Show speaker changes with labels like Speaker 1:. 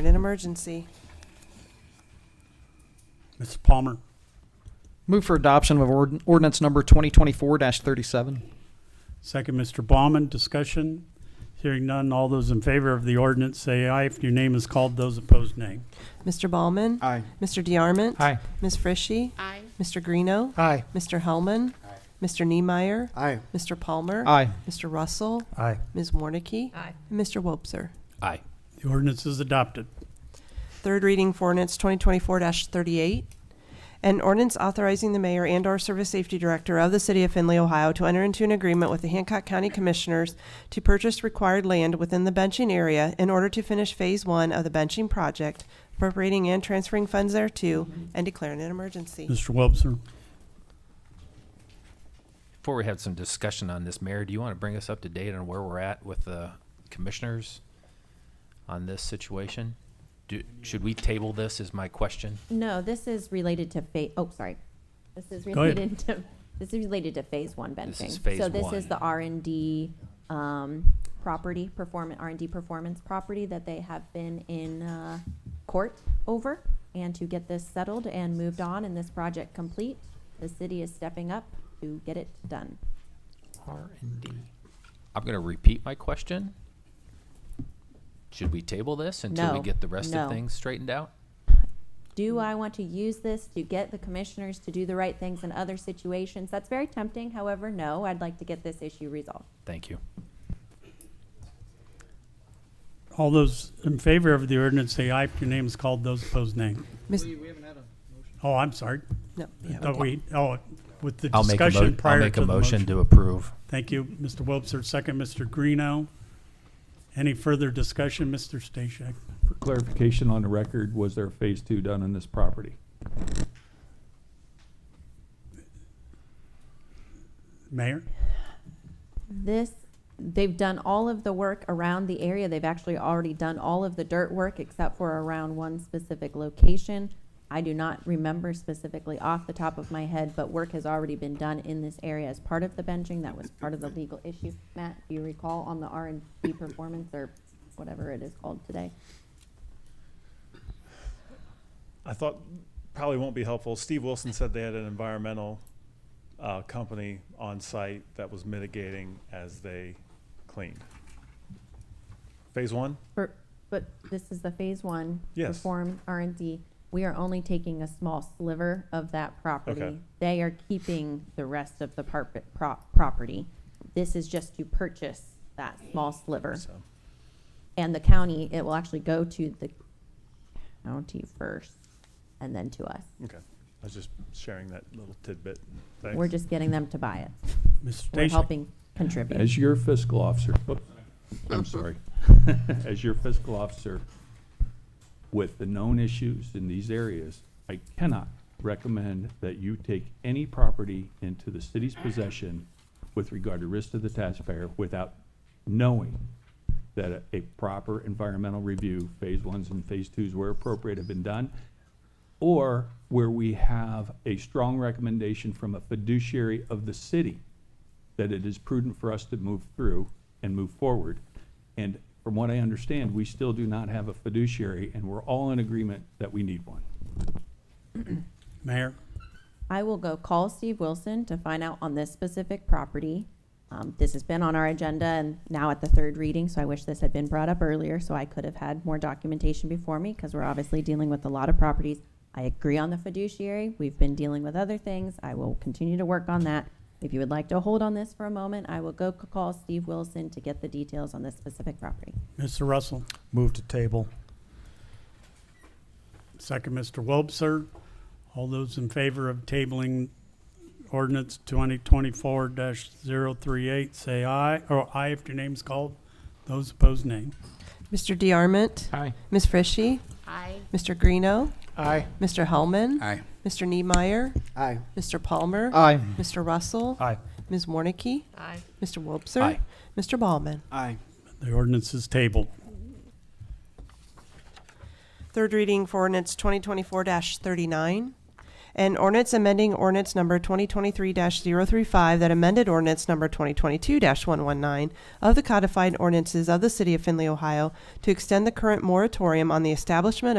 Speaker 1: in an emergency.
Speaker 2: Mr. Palmer,
Speaker 3: Move for adoption of ord- ordinance number 2024-37.
Speaker 2: second Mr. Bauman, discussion. Hearing none, all those in favor of the ordinance say aye. If your name is called, those opposed nay.
Speaker 1: Mr. Ballman?
Speaker 4: Aye.
Speaker 1: Mr. DeArmond?
Speaker 3: Aye.
Speaker 1: Ms. Frishy?
Speaker 5: Aye.
Speaker 1: Mr. Greeno?
Speaker 4: Aye.
Speaker 1: Mr. Hellman? Mr. Niemeyer?
Speaker 4: Aye.
Speaker 1: Mr. Palmer?
Speaker 3: Aye.
Speaker 1: Mr. Russell?
Speaker 4: Aye.
Speaker 1: Ms. Warnicki?
Speaker 5: Aye.
Speaker 1: And Mr. Wobser.
Speaker 6: Aye.
Speaker 2: The ordinance is adopted.
Speaker 1: Third reading for ordinance 2024-38, an ordinance authorizing the mayor and/or service safety director of the city of Findlay, Ohio, to enter into an agreement with the Hancock County Commissioners to purchase required land within the benching area in order to finish Phase One of the benching project, appropriating and transferring funds thereto, and declaring an emergency.
Speaker 2: Mr. Wobser,
Speaker 6: Before we have some discussion on this, Mayor, do you want to bring us up to date on where we're at with the commissioners on this situation? Do, should we table this is my question.
Speaker 5: No, this is related to phase, oh, sorry. This is
Speaker 2: Go ahead.
Speaker 5: related to, this is related to phase one benching.
Speaker 6: This is phase
Speaker 5: So this is
Speaker 6: one.
Speaker 5: the R and D, um, property, perform, R and D performance property that they have been in, uh, court over. And to get this settled and moved on and this project complete, the city is stepping up to get it done.
Speaker 6: R and D. I'm going to repeat my question. Should we table this until we
Speaker 5: No.
Speaker 6: get the rest
Speaker 5: No.
Speaker 6: of things straightened out?
Speaker 5: Do I want to use this to get the commissioners to do the right things in other situations? That's very tempting. However, no, I'd like to get this issue resolved.
Speaker 6: Thank you.
Speaker 2: all those in favor of the ordinance say aye. If your name is called, those opposed nay.
Speaker 1: Miss-
Speaker 2: Oh, I'm sorry.
Speaker 1: No,
Speaker 2: I
Speaker 1: yeah,
Speaker 2: thought
Speaker 1: okay.
Speaker 2: we, oh, with the
Speaker 6: I'll make a
Speaker 2: discussion
Speaker 6: mo- I'll
Speaker 2: prior
Speaker 6: make
Speaker 2: to
Speaker 6: a
Speaker 2: the
Speaker 6: motion
Speaker 2: motion.
Speaker 6: to approve.
Speaker 2: Thank you, Mr. Wobser, second Mr. Greeno. Any further discussion, Mr. Stashak?
Speaker 7: For clarification on the record, was there a phase two done on this property?
Speaker 2: Mayor?
Speaker 5: This, they've done all of the work around the area. They've actually already done all of the dirt work except for around one specific location. I do not remember specifically off the top of my head, but work has already been done in this area as part of the benching. That was part of the legal issue. Matt, do you recall on the R and D performance or whatever it is called today?
Speaker 8: I thought probably won't be helpful. Steve Wilson said they had an environmental uh, company on site that was mitigating as they cleaned. Phase one?
Speaker 5: For, but this is the phase one.
Speaker 8: Yes.
Speaker 5: Perform R and D. We are only taking a small sliver of that
Speaker 8: Okay.
Speaker 5: property. They are keeping the rest of the parp- pro- property. This is just to purchase that small sliver.
Speaker 8: So,
Speaker 5: And the county, it will actually go to the county first and then to us.
Speaker 8: okay. I was just sharing that little tidbit. Thanks.
Speaker 5: We're just getting them to buy it.
Speaker 2: Mr.
Speaker 5: We're
Speaker 2: Stashak?
Speaker 5: helping contribute.
Speaker 7: As your fiscal officer, whoops, I'm sorry. As your fiscal officer with the known issues in these areas, I cannot recommend that you take any property into the city's possession with regard to risk to the taxpayer without knowing that a- a proper environmental review, phase ones and phase twos where appropriate have been done, or where we have a strong recommendation from a fiduciary of the city that it is prudent for us to move through and move forward. And from what I understand, we still do not have a fiduciary, and we're all in agreement that we need one.
Speaker 2: Mayor?
Speaker 5: I will go call Steve Wilson to find out on this specific property. Um, this has been on our agenda and now at the third reading, so I wish this had been brought up earlier so I could have had more documentation before me because we're obviously dealing with a lot of properties. I agree on the fiduciary. We've been dealing with other things. I will continue to work on that. If you would like to hold on this for a moment, I will go c- call Steve Wilson to get the details on this specific property.
Speaker 2: Mr. Russell?
Speaker 4: Move to table.
Speaker 2: Second, Mr. Wobser. All those in favor of tabling ordinance twenty twenty-four 38 say aye, or aye if your name's called. Those opposed, nay.
Speaker 1: Mr. DeArmond?
Speaker 3: Aye.
Speaker 1: Ms. Frishy?
Speaker 5: Aye.
Speaker 1: Mr. Greeno?
Speaker 4: Aye.
Speaker 1: Mr. Hellman?
Speaker 4: Aye.
Speaker 1: Mr. Niemeyer?
Speaker 4: Aye.
Speaker 1: Mr. Palmer?
Speaker 3: Aye.
Speaker 1: Mr. Russell?
Speaker 4: Aye.
Speaker 1: Ms. Warnicki?
Speaker 5: Aye.
Speaker 1: Mr. Wobser?
Speaker 6: Aye.
Speaker 1: Mr. Ballman?
Speaker 4: Aye.
Speaker 2: The ordinance is tabled.
Speaker 1: Third reading for ordinance 2024-39, An ordinance amending ordinance number 2023-035 that amended ordinance number 2022-119 of the codified ordinances of the City of Findlay, Ohio to extend the current moratorium on the establishment of